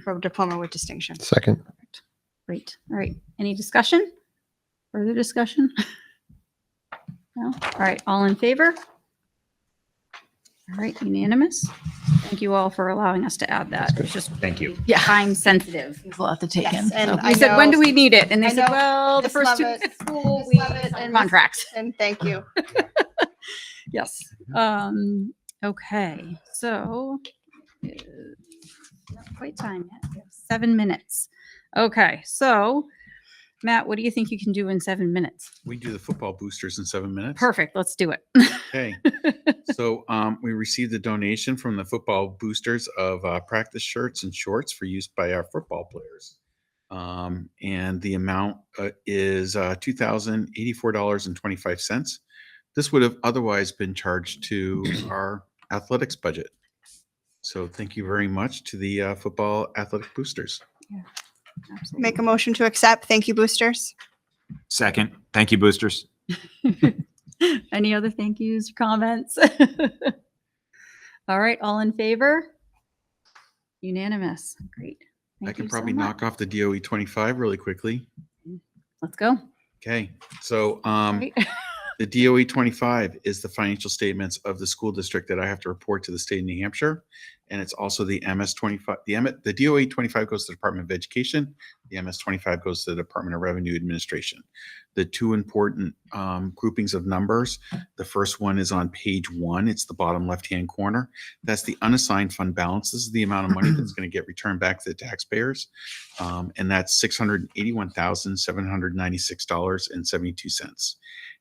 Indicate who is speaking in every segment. Speaker 1: for diploma with distinction.
Speaker 2: Second.
Speaker 3: Great. All right. Any discussion? Further discussion? No? All right. All in favor? All right. Unanimous. Thank you all for allowing us to add that. It's just
Speaker 4: Thank you.
Speaker 5: Yeah.
Speaker 3: time sensitive.
Speaker 5: There's a lot to take in.
Speaker 1: Yes, and
Speaker 5: so.
Speaker 1: I
Speaker 3: We said,
Speaker 1: know-
Speaker 3: when do we need it? And they
Speaker 1: I
Speaker 3: said,
Speaker 1: know
Speaker 3: well, the
Speaker 1: Miss
Speaker 3: first two
Speaker 1: Lovett-
Speaker 3: school
Speaker 1: Miss
Speaker 3: weeks
Speaker 1: Lovett and
Speaker 3: and
Speaker 1: Miss-
Speaker 3: contracts.
Speaker 1: And thank you.
Speaker 3: Yes. Um, okay, so. uh, not Quite time yet. We have Seven minutes. Okay, so Matt, what do you think you can do in seven minutes?
Speaker 6: We do the football boosters in seven minutes.
Speaker 3: Perfect, let's do it.
Speaker 6: Okay. So um, we received a donation from the football boosters of uh, practice shirts and shorts for use by our football players. Um, and the amount uh, is uh, $2,084.25. This would have otherwise been charged to our athletics budget. So thank you very much to the uh, football athletic boosters.
Speaker 1: Make a motion to accept. Thank you, boosters.
Speaker 4: Second, thank you, boosters.
Speaker 3: Absolutely. Any other thank yous, or comments? All right, all in favor? Unanimous, great.
Speaker 6: I
Speaker 3: Thank
Speaker 6: can
Speaker 3: you so
Speaker 6: probably
Speaker 3: much.
Speaker 6: knock off the DOE 25 really quickly.
Speaker 3: Let's go.
Speaker 6: Okay. So um,
Speaker 3: Great.
Speaker 6: The DOE 25 is the financial statements of the school district that I have to report to the state of New Hampshire. And it's also the MS 25, the M, the DOE 25 goes to the Department of Education. The MS 25 goes to the Department of Revenue Administration. The two important um, groupings of numbers. The first one is on page one. It's the bottom left-hand corner. That's the unassigned fund balance. This is the amount of money that's going to get returned back to the taxpayers. Um, And that's $681,796.72.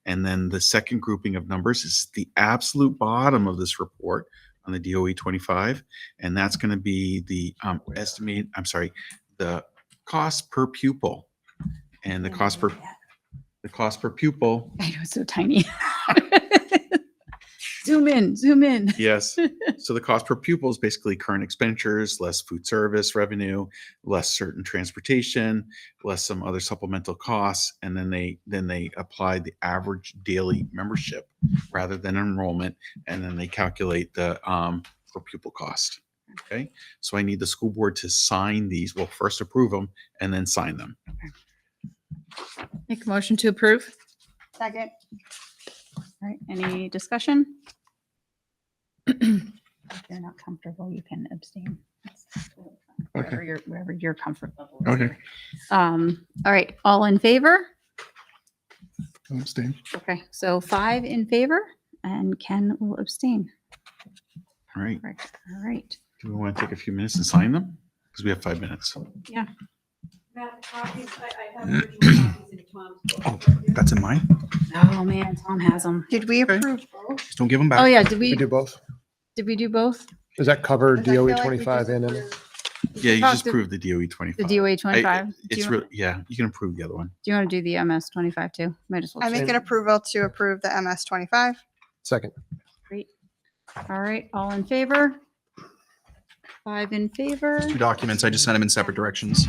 Speaker 6: And then the second grouping of numbers is the absolute bottom of this report on the DOE 25. And that's going to be the um, estimate, I'm sorry, the cost per pupil. And the cost per, the cost per pupil,
Speaker 3: I know, it's so tiny. Zoom in, zoom in.
Speaker 6: yes. So the cost per pupil is basically current expenditures, less food service revenue, less certain transportation, less some other supplemental costs. And then they, then they apply the average daily membership rather than enrollment. And then they calculate the, um, per pupil cost. Okay. So I need the school board to sign these. We'll first approve them and then sign them.
Speaker 5: Make a motion to approve?
Speaker 1: Second.
Speaker 3: All right, any discussion? If you're not comfortable, you can abstain. It's totally fine,
Speaker 2: Okay.
Speaker 3: Wherever your, wherever your comfort level is.
Speaker 2: Okay.
Speaker 3: Um, all right, all in favor?
Speaker 2: I'm abstaining.
Speaker 3: Okay, so five in favor and Ken will abstain.
Speaker 6: All right.
Speaker 3: Correct. All right.
Speaker 6: Do we want to take a few minutes and sign them? Because we have five minutes.
Speaker 4: Oh, that's in mine?
Speaker 3: Oh, man, Tom has them.
Speaker 1: Did we
Speaker 4: Okay.
Speaker 1: approve?
Speaker 4: Just don't give them back.
Speaker 3: Oh, yeah, did
Speaker 2: Uh, We
Speaker 3: we,
Speaker 2: do both.
Speaker 3: did we do both?
Speaker 2: Does that cover
Speaker 1: Because I feel
Speaker 2: DOE
Speaker 1: like we
Speaker 2: 25
Speaker 1: just
Speaker 2: E and M?
Speaker 1: approved-
Speaker 6: Yeah, you just
Speaker 3: Talk to-
Speaker 6: approved the DOE 25.
Speaker 3: The
Speaker 5: E
Speaker 3: DOA
Speaker 6: I-
Speaker 3: 25? Do
Speaker 6: It's
Speaker 3: you
Speaker 6: really,
Speaker 3: want
Speaker 6: yeah, you can approve the other one.
Speaker 3: to do the MS 25 too? Might as well.
Speaker 1: I
Speaker 3: just-
Speaker 1: make an approval to approve the MS 25.
Speaker 2: Second.
Speaker 3: Great. All right, all in favor? Five in favor.
Speaker 4: Two documents, I just sent them in separate directions.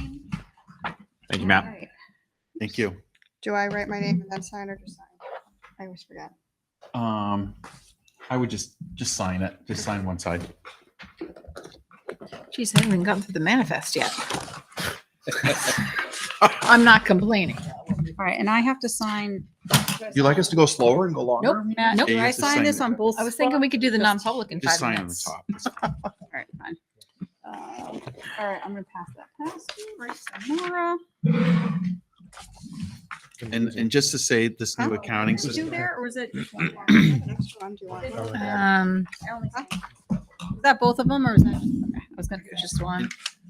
Speaker 4: Thank you, Matt.
Speaker 3: Alright.
Speaker 6: Thank you.
Speaker 1: Do I write my name and then sign or just sign? I always forget.
Speaker 6: Um, I would just, just sign it, just sign one side.
Speaker 5: Geez, I haven't even gotten through the manifest yet. I'm not complaining.
Speaker 3: All right, and I have to sign.
Speaker 4: You like us to go slower and go longer?
Speaker 5: Nope.
Speaker 3: Matt,
Speaker 5: Uh, Nope.
Speaker 3: do
Speaker 6: Yeah, you
Speaker 3: I
Speaker 6: have to
Speaker 3: sign
Speaker 6: sign
Speaker 3: this
Speaker 6: it.
Speaker 3: on both?
Speaker 5: I was thinking we could do the non-public in
Speaker 6: Just sign
Speaker 5: five
Speaker 6: on the
Speaker 5: minutes.
Speaker 6: top.
Speaker 3: All right, fine. Um, All right, I'm gonna pass that past you, Bryce and Nora.
Speaker 6: And, and just to say, this
Speaker 5: Oh.
Speaker 6: new accounting
Speaker 3: Did you do
Speaker 6: system,
Speaker 3: there, or is it?
Speaker 1: I have an extra one. Do you want one?
Speaker 5: Um,
Speaker 3: I only signed- Is that both of them, or is that? okay, I was gonna
Speaker 5: it's just one.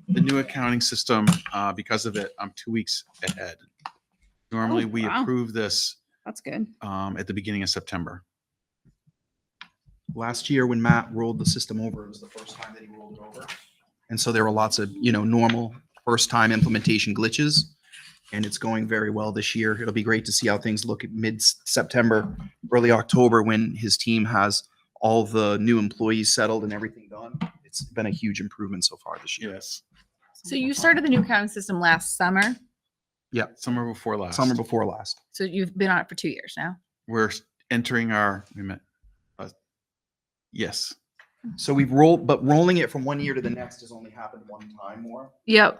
Speaker 6: the new accounting system, uh, because of it, I'm two weeks ahead. Normally, we
Speaker 3: wow.
Speaker 6: approve this,
Speaker 3: That's good.
Speaker 6: um, at the beginning of September.
Speaker 4: Last year, when Matt rolled the system over, it was the first time that he rolled it over. And so there were lots of, you know, normal first-time implementation glitches. And it's going very well this year. It'll be great to see how things look at mid-September, early October, when his team has all the new employees settled and everything done. It's been a huge improvement so far this year.
Speaker 6: Yes.
Speaker 5: So you started the new accounting system last summer.
Speaker 6: Summer before last.
Speaker 4: Summer before last.
Speaker 5: So you've been on it for two years now.
Speaker 6: We're entering our, we met, uh, yes,
Speaker 4: So we've rolled, but rolling it from one year to the next has only happened one time more.
Speaker 5: Yep.